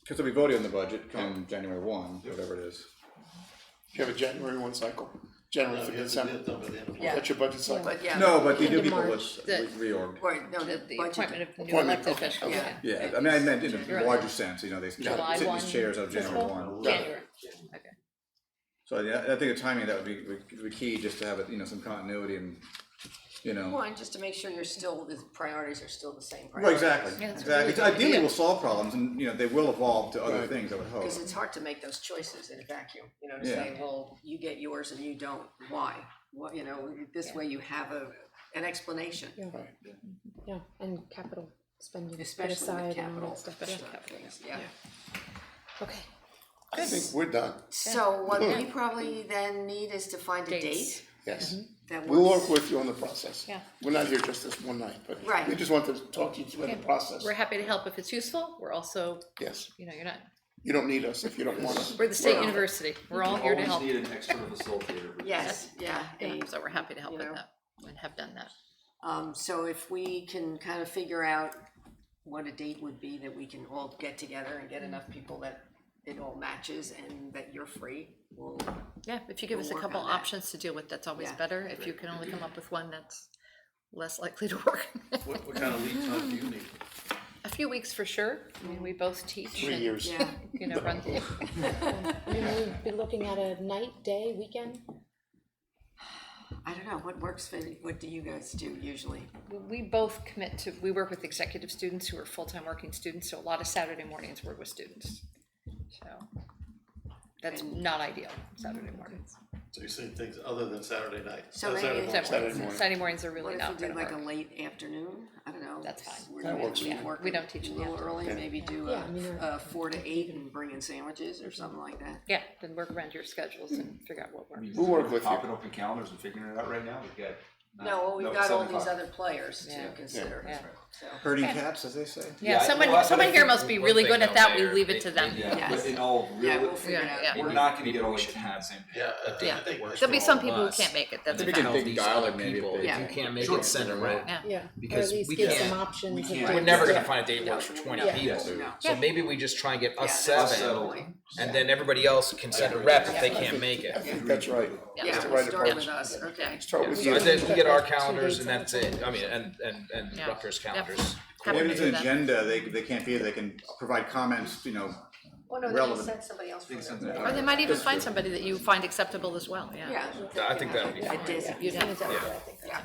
because they'll be voting on the budget come January one, whatever it is. You have a January one cycle, January No, through you have to do December. it done by the end of the Yeah. That's your budget cycle. But yeah. No, but the Into new people March, was the- re- reorg. Right, no, The the the appointment budget, of new Appointment, elected okay. officials, Yeah. yeah. Yeah, I mean, I meant in You're a right. larger sense, you know, they July sit in these one, chairs out of January fiscal? one. January, okay. So yeah, I think the timing of that would be, would- would be key, just to have, it, you know, some continuity and, you know. one, just to make sure you're still, the priorities are still the same Right, priorities. exactly, Yeah, that's a really exactly. good Ideally, idea. we'll solve problems and, you know, they will evolve to other Right. things, I would hope. Cause it's hard to make those choices in a vacuum, you know, to Yeah. say, well, you get yours and you don't, why? What, you know, this way you have a, an explanation. Yeah. Yeah, and capital spending put Especially with aside and all capital, that stuff, yeah. especially with things, yeah. Okay, I think we're done, So what we probably then need is to find a Dates. date yes. that We'll work works. with you on the process. Mm-hmm. Yeah. We're not here just this one night, but Right. we just want to talk to you through the process. We're happy to help if it's useful. We're also, Yes, you know, you're not, you don't need us if you don't want us. we're the state Well- university. We're all here to Always help. need an external facilitator. Yes, yeah, a- So we're happy to help with Yeah. that and have done that. Um, so if we can kind of figure out what a date would be that we can all get together and get enough people that it all matches and that you're free, we'll, Yeah, if you give us a We'll work couple on that. options to deal with, that's always Yeah. better. If you can only come up with one, that's less likely to work. What, what kind of lead time do you need? A few weeks for sure. I mean, we both teach Three and, years. yeah, you know, run things. I mean, we'd be looking at a night, day, weekend, I don't know, what works for, what do you guys do usually? We both commit to, we work with executive students who are full-time working students, so a lot of Saturday mornings work with students. So that's not ideal, Saturday mornings. So you're saying things other than Saturday night? So Uh, maybe- Saturday morning. Saturday morning. mornings, Saturday mornings are What really if not we gonna do like a work. late afternoon, I don't know. That's fine. We're That maybe works for me. work We don't teach A in the little early, afternoon. maybe do Yeah, a, I mean, a four to eight and bring in sandwiches or something like that. Yeah, then work around your schedules and figure out what works. We'll work with you. Popping open calendars and figuring it out right now, we've got. No, well, we've it's got all seven these o'clock. other players Yeah. to Uh, Yeah, consider, yeah. so. Herding cats, as they say. Yeah, I- someone, well, I- but I someone here think must be one really thing good at out that. We there, leave they- it to they- them. Yeah, Yes. but in all Yeah, we'll real, figure it out. yeah. we're not gonna get all the Yeah, I- I Yeah. think we're. There'll be some people who can't make it, that's I a think we can fact. big these dialogue other maybe if people. they- Yeah. You can't make Sure. it center right. Yeah. yeah, or at Because least we give can't- some options. we of can't- what We're Right. never to gonna do. find a date that works for twenty Yeah. people. No. So maybe we just try and get us Yeah, that's seven, the point. and then everybody else can send a rep if they can't make it. I think that's right. That's Yeah, the we'll right start approach. with us, okay. Start with So you. then we get our Two dates calendars and on the that's it, I mean, and, and, and Yeah. Rutgers Yep. calendars. Happy Maybe to it's do an that. agenda, they, they can't be, they can provide comments, you know, Well, no, they Relevant. just sent somebody else for that. Or they might even find somebody that you find acceptable as well, yeah. Yeah. I think that would be fine. A desi- You'd have- yeah.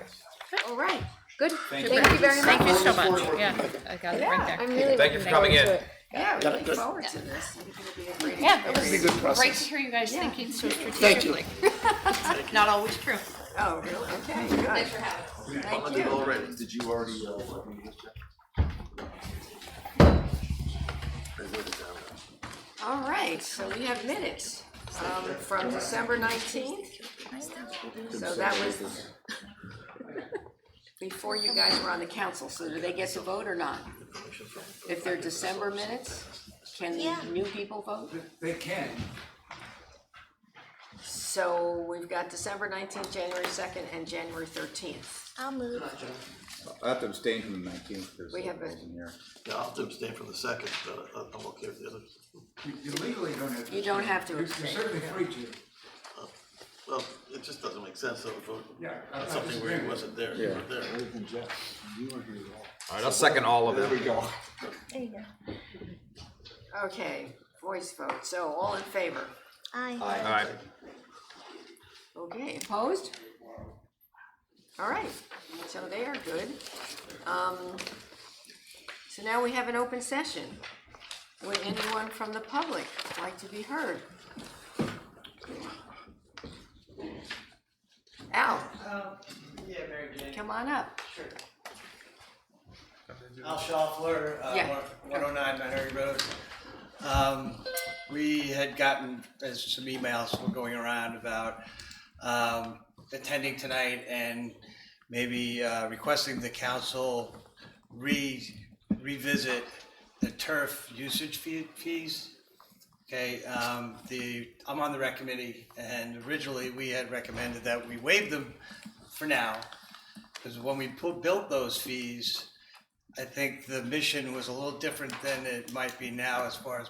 All right, Good. Thank Thank you very much. Thank you so much. much, yeah. I got it right I'm there. really Thank you for looking forward coming in. to it. yeah, we look forward to this, I think it'll be a great Yeah, it Be a was good great process. to hear you guys Yeah. thinking so Thank you. strategically. Not always true. Oh, really, okay, good, thank Did you. already, did you already, uh, work on this, Jeff? All right, so we have minutes, um, from December nineteenth. So that was before you guys were on the council, so do they get to vote or not? If they're December minutes, can new people vote? They can, So we've got December nineteenth, January second, and January thirteenth. I'll move. I have to abstain from the nineteenth, there's We have a- rules in here. Yeah, I'll have to abstain from the second, but I- I'm okay with the other. you you legally don't have to. You don't have to You're you're abstain. certainly free to. Well, it just doesn't make sense to vote Yeah, I- I on something where disagree. he wasn't there, you were there. All right, I'll second all of them. go. Okay, voice vote, so all in favor? All right, Okay, opposed? All right, so they are good. Um, so now we have an open session. Would anyone from the public like to be heard? Al, Um, yeah, Mary Jane. come on up. Sure. Al Schaffler, Yeah. uh, one oh nine Manhattan Road. Um, we had gotten, uh some emails were going around about, um, attending tonight and maybe, uh, requesting the council re, revisit the turf usage fee, fees. Okay, um, the, I'm on the rec committee and originally we had recommended that we waive them for now. Because when we put, built those fees, I think the mission was a little different than it might be now as far as